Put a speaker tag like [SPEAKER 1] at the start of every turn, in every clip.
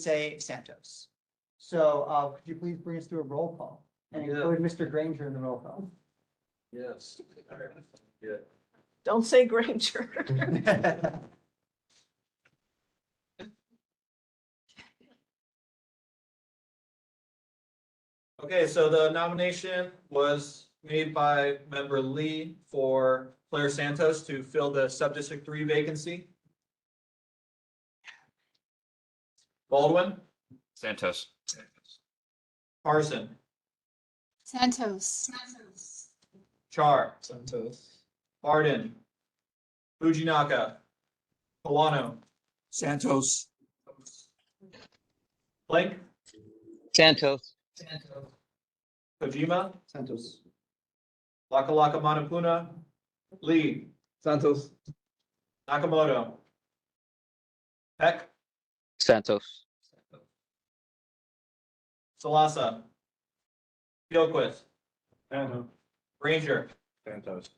[SPEAKER 1] say Santos. So uh, could you please bring us through a roll call and
[SPEAKER 2] Yeah.
[SPEAKER 1] include Mr. Granger in the roll call?
[SPEAKER 2] Yes.
[SPEAKER 3] Don't say Granger.
[SPEAKER 2] Okay, so the nomination was made by member Lee for Claire Santos to fill the sub-district three vacancy. Baldwin,
[SPEAKER 4] Santos.
[SPEAKER 2] Parson,
[SPEAKER 5] Santos.
[SPEAKER 2] Char. Santos. Arden. Fujinaka. Polano.
[SPEAKER 4] Santos.
[SPEAKER 2] Blake.
[SPEAKER 6] Santos,
[SPEAKER 2] Kojima.
[SPEAKER 1] Santos.
[SPEAKER 2] Laka Laka Manapuna. Lee.
[SPEAKER 1] Santos.
[SPEAKER 2] Nakamoto. Peck.
[SPEAKER 6] Santos,
[SPEAKER 2] Salasa. Gilquist. Ranger.
[SPEAKER 4] Santos.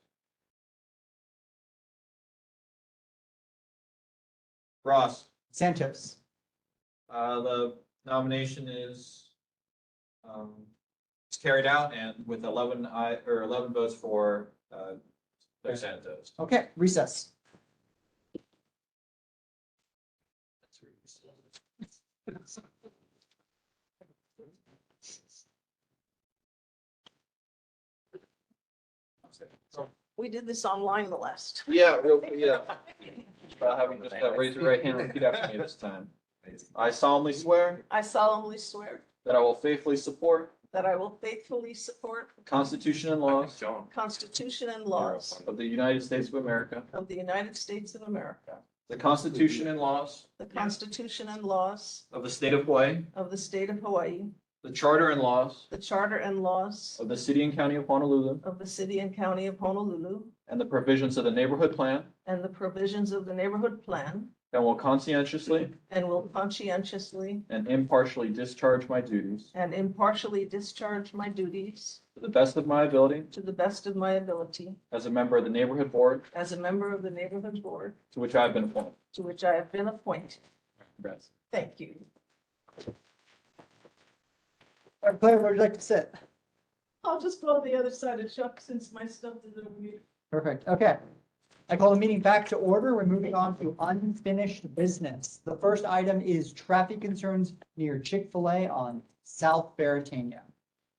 [SPEAKER 2] Ross.
[SPEAKER 1] Santos.
[SPEAKER 2] Uh, the nomination is um, is carried out and with eleven I, or eleven votes for uh, Claire Santos.
[SPEAKER 1] Okay, recess.
[SPEAKER 3] We did this online the last.
[SPEAKER 2] Yeah, yeah. Uh, having just uh, raise your right hand and repeat after me this time. I solemnly swear
[SPEAKER 3] I solemnly swear
[SPEAKER 2] that I will faithfully support
[SPEAKER 3] that I will faithfully support
[SPEAKER 2] the Constitution and laws
[SPEAKER 3] the Constitution and laws
[SPEAKER 2] of the United States of America,
[SPEAKER 3] of the United States of America,
[SPEAKER 2] the Constitution and laws
[SPEAKER 3] the Constitution and laws
[SPEAKER 2] of the state of Hawaii,
[SPEAKER 3] of the state of Hawaii,
[SPEAKER 2] the charter and laws
[SPEAKER 3] the charter and laws
[SPEAKER 2] of the city and county of Honolulu,
[SPEAKER 3] of the city and county of Honolulu,
[SPEAKER 2] and the provisions of the neighborhood plan,
[SPEAKER 3] and the provisions of the neighborhood plan,
[SPEAKER 2] and will conscientiously
[SPEAKER 3] and will conscientiously
[SPEAKER 2] and impartially discharge my duties
[SPEAKER 3] and impartially discharge my duties
[SPEAKER 2] to the best of my ability
[SPEAKER 3] to the best of my ability
[SPEAKER 2] as a member of the neighborhood board
[SPEAKER 3] as a member of the neighborhood board
[SPEAKER 2] to which I have been appointed.
[SPEAKER 3] to which I have been appointed.
[SPEAKER 2] Congrats.
[SPEAKER 3] Thank you.
[SPEAKER 1] All right, Claire, where would you like to sit?
[SPEAKER 3] I'll just go on the other side of Chuck since my stuff is over here.
[SPEAKER 1] Perfect, okay. I call the meeting back to order. We're moving on to unfinished business. The first item is traffic concerns near Chick-fil-A on South Baratania.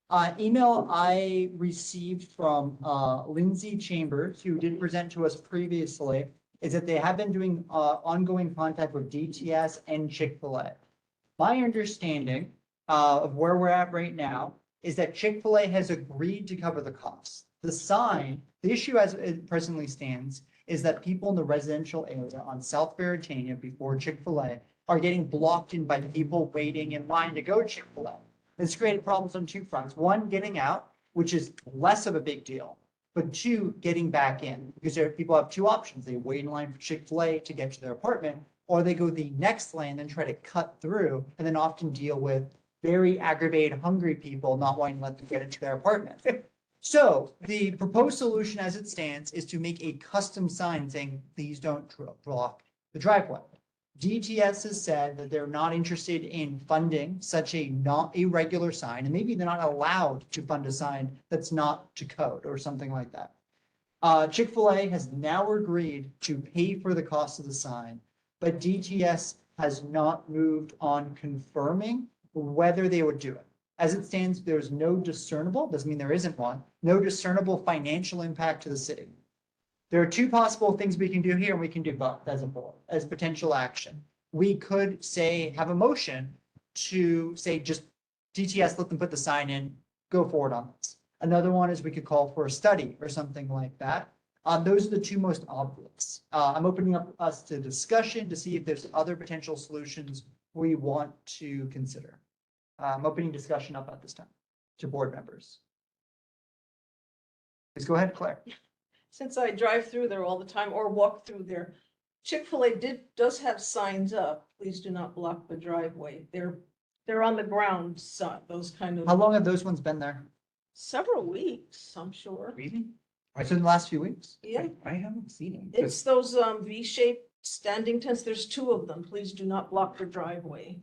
[SPEAKER 1] Uh, email I received from, uh, Lindsay Chambers, who did present to us previously, is that they have been doing, uh, ongoing contact with DTS and Chick-fil-A. My understanding, uh, of where we're at right now is that Chick-fil-A has agreed to cover the costs. The sign, the issue as it presently stands is that people in the residential area on South Veritania before Chick-fil-A are getting blocked in by people waiting in line to go to Chick-fil-A. This created problems on two fronts. One, getting out, which is less of a big deal. But two, getting back in, because there, people have two options. They wait in line for Chick-fil-A to get to their apartment, or they go the next lane and try to cut through and then often deal with very aggravated, hungry people not wanting to let them get into their apartment. So the proposed solution as it stands is to make a custom sign saying, please don't dro- block the driveway. DTS has said that they're not interested in funding such a not a regular sign, and maybe they're not allowed to fund a sign that's not to code or something like that. Uh, Chick-fil-A has now agreed to pay for the cost of the sign, but DTS has not moved on confirming whether they would do it. As it stands, there's no discernible, doesn't mean there isn't one, no discernible financial impact to the city. There are two possible things we can do here, and we can do both as a board, as potential action. We could say, have a motion to say, just DTS, let them put the sign in, go forward on this. Another one is we could call for a study or something like that. Uh, those are the two most obvious. Uh, I'm opening up us to discussion to see if there's other potential solutions we want to consider. Uh, I'm opening discussion up at this time to board members. Please go ahead, Claire.
[SPEAKER 3] Since I drive through there all the time or walk through there, Chick-fil-A did, does have signs up, please do not block the driveway. They're, they're on the ground, so those kind
[SPEAKER 1] How
[SPEAKER 3] of,
[SPEAKER 1] long have those ones been there?
[SPEAKER 3] several weeks, I'm sure.
[SPEAKER 1] Really? Right, so in the last few weeks?
[SPEAKER 3] Yeah,
[SPEAKER 4] I haven't seen him.
[SPEAKER 3] it's those um V-shaped standing tents. There's two of them. Please do not block the driveway.